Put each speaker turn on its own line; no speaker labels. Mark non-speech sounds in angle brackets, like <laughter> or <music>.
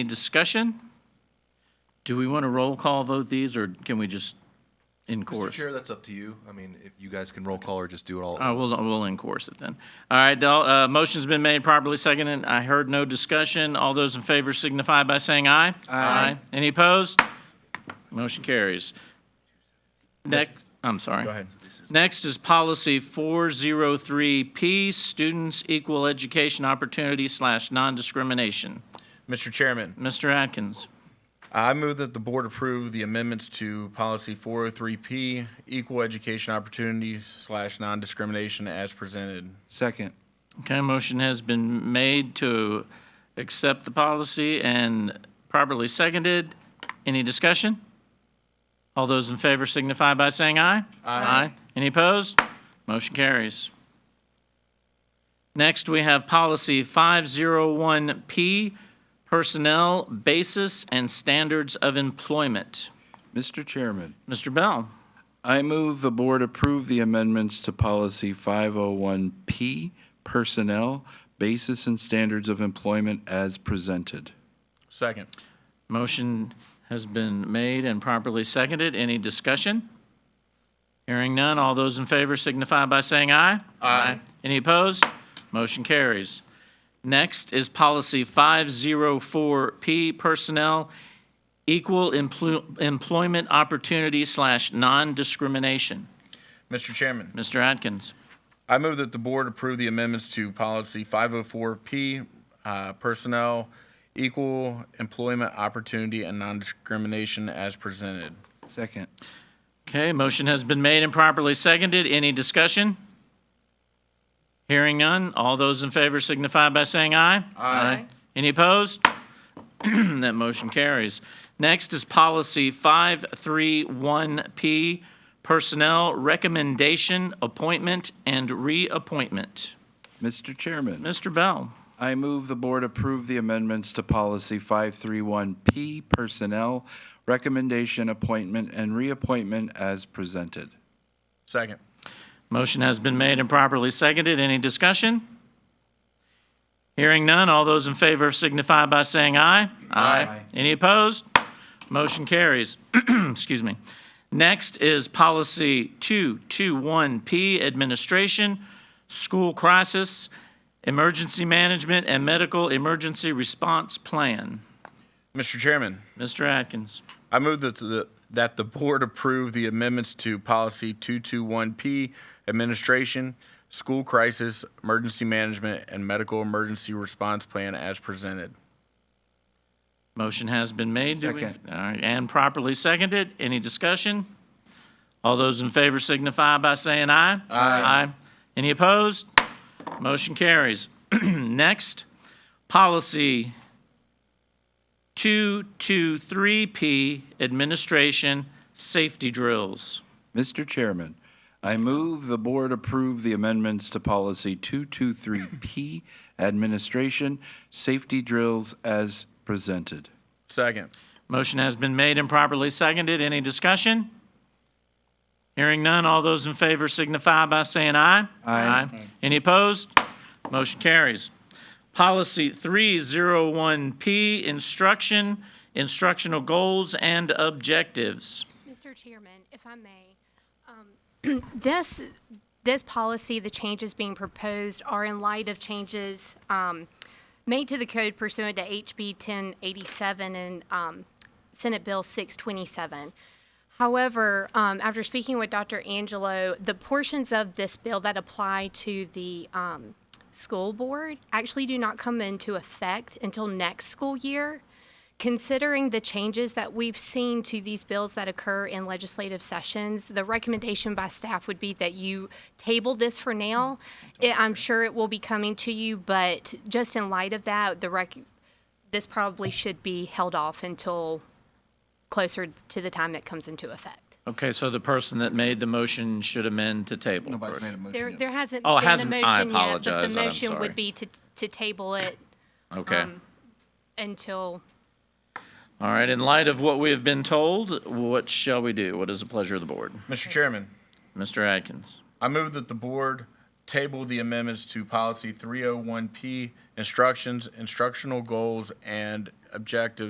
Any discussion? Do we want to roll call vote these, or can we just in
Mr.
course?
Chair, that's up to you. I mean, if you guys can roll call or just do it all. at
Uh,
once.
we'll, we'll in course it then. All right, Del- uh, motion's been made properly seconded. I heard no discussion. All those in favor signify by saying aye. Aye. Any opposed? Motion carries. Next, I'm sorry.
Go ahead.
Next is policy 403P, students equal education opportunity slash non-discrimination.
Mr. Chairman,
Mr. Atkins.
I move that the board approve the amendments to policy 403P, equal education opportunity slash non-discrimination as presented.
Second.
Okay, motion has been made to accept the policy and properly seconded. Any discussion? All those in favor signify by saying aye. Aye. Any opposed? Motion carries. Next, we have policy 501P, personnel basis and standards of employment.
Mr. Chairman,
Mr. Bell,
I move the board approve the amendments to policy 501P, personnel, basis and standards of employment as presented.
Second.
motion has been made and properly seconded. Any discussion? Hearing none, all those in favor signify by saying aye. Aye. Any opposed? Motion carries. Next is Policy 504P, Personnel, Equal Emplo- Employment Opportunity slash Non-Discrimination.
Mr. Chairman,
Mr. Atkins.
I move that the board approve the amendments to policy 504P, uh, personnel, equal employment opportunity and non-discrimination as presented.
Second.
Okay, motion has been made and properly seconded. Any discussion? Hearing none, all those in favor signify by saying aye. Aye. Any opposed? <clears throat> That motion carries. Next is Policy 531P, Personnel Recommendation, Appointment, and Reappointment.
Mr. Chairman,
Mr. Bell,
I move the board approve the amendments to policy 531P, personnel, recommendation, appointment, and reappointment as presented.
Second.
motion has been made and properly seconded. Any discussion? Hearing none, all those in favor signify by saying aye. Aye. Any opposed? Motion carries. <clears throat> Excuse me. Next is Policy 221P, Administration, School Crisis, Emergency Management, and Medical Emergency Response Plan.
Mr. Chairman,
Mr. Atkins.
I move that the, that the board approve the amendments to policy 221P, administration, school crisis, emergency management, and medical emergency response plan as presented.
Motion has been made. Do we-
Second.
All right, And properly seconded. Any discussion? All those in favor signify by saying aye. Aye. Any opposed? Motion carries. <clears throat> Next, policy 223P, Administration Safety Drills.
Mr. Chairman, I move the board approve the amendments to policy 223P, administration, safety drills as presented.
Second.
Motion has been made and properly seconded. Any discussion? Hearing none, all those in favor signify by saying aye. Aye. Any opposed? Motion carries. Policy 301P, instruction, instructional goals and objectives.
Mr. Chairman, if I may, um, <clears throat> this, this policy, the changes being proposed are in light of changes um, made to the code pursuant to HB 1087 and um, Senate Bill 627. However, um, after speaking with Dr. Angelo, the portions of this bill that apply to the um, school board actually do not come into effect until next school year. Considering the changes that we've seen to these bills that occur in legislative sessions, the recommendation by staff would be that you table this for now. It- I'm sure it will be coming to you, but just in light of that, the rec, this probably should be held off until closer to the time that comes into effect.
Okay, so the person that made the motion should amend to table.
Nobody's made a motion
There,
yet.
there hasn't
Oh, it
been a
hasn't- I
motion yet, but the
apologize. I'm
motion
sorry.
would be to, to table it
Okay.
until
All right, in light of what we have been told, what shall we do? What is the pleasure of the board?
Mr. Chairman,
Mr. Atkins.
I move that the board table the oh amendments to policy 301P, instructions, instructional goals, and objectives